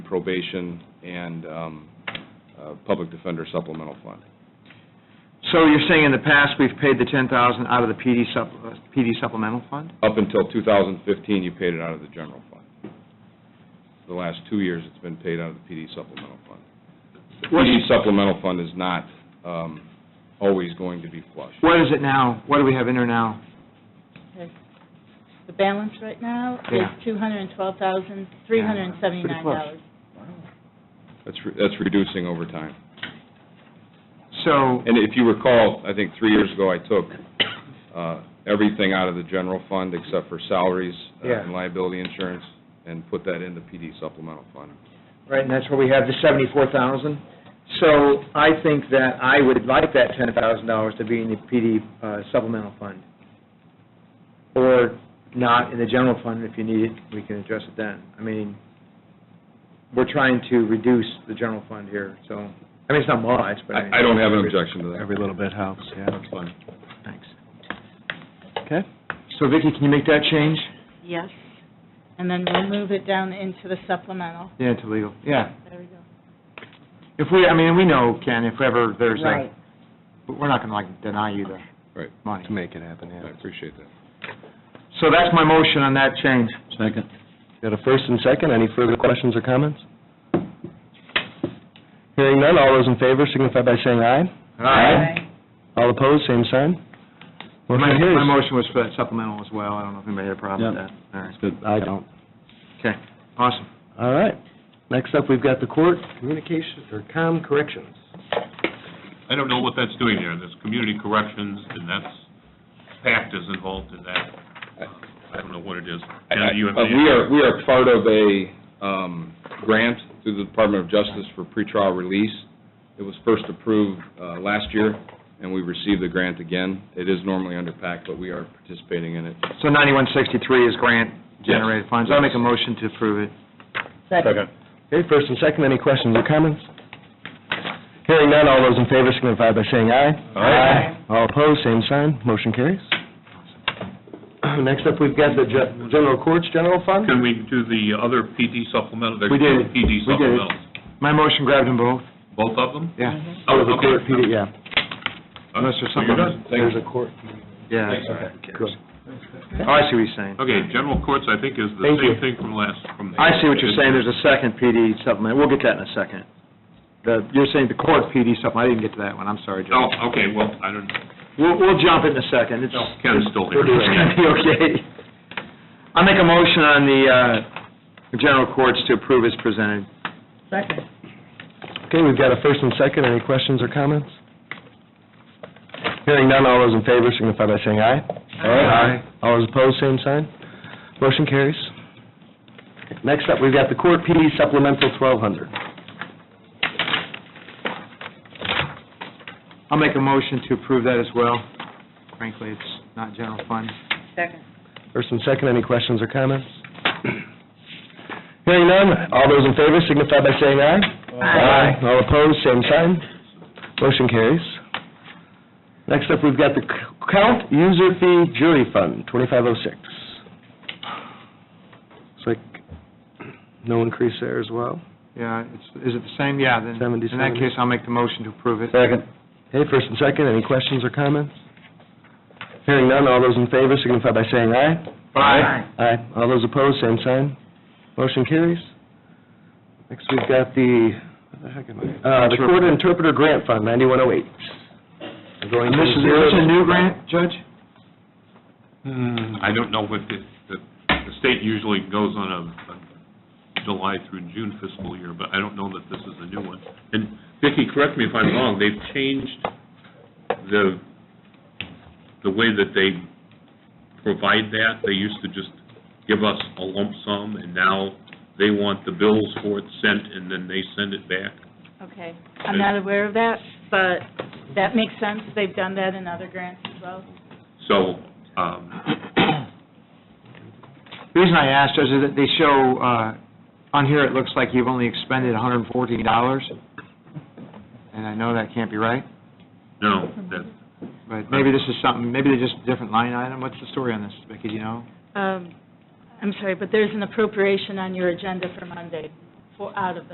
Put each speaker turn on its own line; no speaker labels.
probation and um, uh, public defender supplemental fund.
So you're saying in the past, we've paid the ten thousand out of the PD sup, uh, PD supplemental fund?
Up until 2015, you paid it out of the general fund. The last two years, it's been paid out of the PD supplemental fund. The
What's-
PD supplemental fund is not um, always going to be flush.
What is it now? What do we have in there now?
The balance right now
Yeah.
is two hundred and twelve thousand, three hundred and seventy-nine dollars.
That's re- that's reducing over time.
So,
And if you recall, I think three years ago, I took uh, everything out of the general fund except for salaries uh,
Yeah.
and liability insurance and put that in the PD supplemental fund.
right, and that's where we have the seventy-four thousand? So I think that I would like that ten thousand dollars to be in the PD uh, supplemental fund. Or not in the general fund, if you need it, we can address it then. I mean, we're trying to reduce the general fund here, so, I mean, it's not much, but I mean...
I I don't have an objection to that.
Every little bit helps, yeah.
That's fine.
Thanks.
Okay.
So Vicki, can you make that change?
Yes. And then we'll move it down into the supplemental.
Yeah, to legal, yeah.
There we go.
If we, I mean, we know, Ken, if ever there's a,
Right.
but we're not going to like deny you the
Right.
money.
To make it happen,
I
yeah.
appreciate that.
So that's my motion on that change.
Second. Got a first and second. Any further questions or comments? Hearing none, all those in favor signify by saying aye. All opposed, same sign.
My,
Motion carries.
my motion was for that supplemental as well. I don't know if anybody had a problem with that. All right.
Good, I don't.
Okay, awesome.
All right. Next up, we've got the court communication, or com corrections.
I don't know what that's doing there. There's community corrections, and that's, PACT is involved in that. I don't know what it is.
I- I-
And you have-
uh, We are, we are part of a um, grant through the Department of Justice for pretrial release. It was first approved uh, last year, and we received the grant again. It is normally under PAC, but we are participating in it.
So ninety-one sixty-three is grant generated funds. I'll make a motion to approve it.
Second.
Okay, first and second, any questions or comments? Hearing none, all those in favor signify by saying aye.
Aye.
All opposed, same sign, motion carries. Next up, we've got the Ge- General Courts General Fund.
Can we do the other PD supplemental? There's
We did.
two PD
We did.
supplementals.
My motion grabbed them both,
Both of them?
yeah.
Oh,
The court,
okay.
PD, yeah.
Unless there's
So you're
something-
done.
There's a court.
Yeah.
Thanks.
Good. Oh, I see what you're saying.
Okay, general courts, I think, is the
Thank you.
same thing from last, from.
I see what you're saying, there's a second PD supplement, we'll get that in a second. The, you're saying the court PD supplement, I didn't get to that one, I'm sorry, Joe.
Oh, okay, well, I don't,
We'll, we'll jump in a second, it's.
no, Ken's still here.
It's gonna be okay. I'll make a motion on the, uh, general courts to approve as presented.
Second.
Okay, we've got a first and second, any questions or comments? Hearing none, all those in favor signify by saying aye.
Aye.
All those opposed, same sign, motion carries. Next up, we've got the court PD supplemental twelve hundred.
I'll make a motion to approve that as well. Frankly, it's not general fund.
Second.
First and second, any questions or comments? Hearing none, all those in favor signify by saying aye. All opposed, same sign. Motion carries. Next up, we've got the c- count user fee jury fund, 2506. Looks like no increase there as well.
Yeah, it's, is it the same? Yeah, then,
Seventy,
in that
seventy.
case, I'll make the motion to approve it.
Second. Okay, first and second, any questions or comments? Hearing none, all those in favor signify by saying aye. Aye. All those opposed, same sign. Motion carries. Next, we've got the, what the heck am I? Uh, the Court Interpreter Grant Fund, 9108. Going
And
from
this is,
zero
this
to-
a new grant, Judge?
I don't know if it, the, the state usually goes on a- a July through June fiscal year, but I don't know that this is a new one. And Vicki, correct me if I'm wrong, they've changed the, the way that they provide that. They used to just give us a lump sum, and now they want the bills for it sent, and then they send it back.
Okay. I'm not aware of that, but that makes sense. They've done that in other grants as well.
So, um,
The reason I asked is that they show, uh, on here, it looks like you've only expended $114, and I know that can't be right,
no, that,
but maybe this is something, maybe they're just a different line item. What's the story on this, Vicki, do you know?
Um, I'm sorry, but there's an appropriation on your agenda for Monday for, out of it.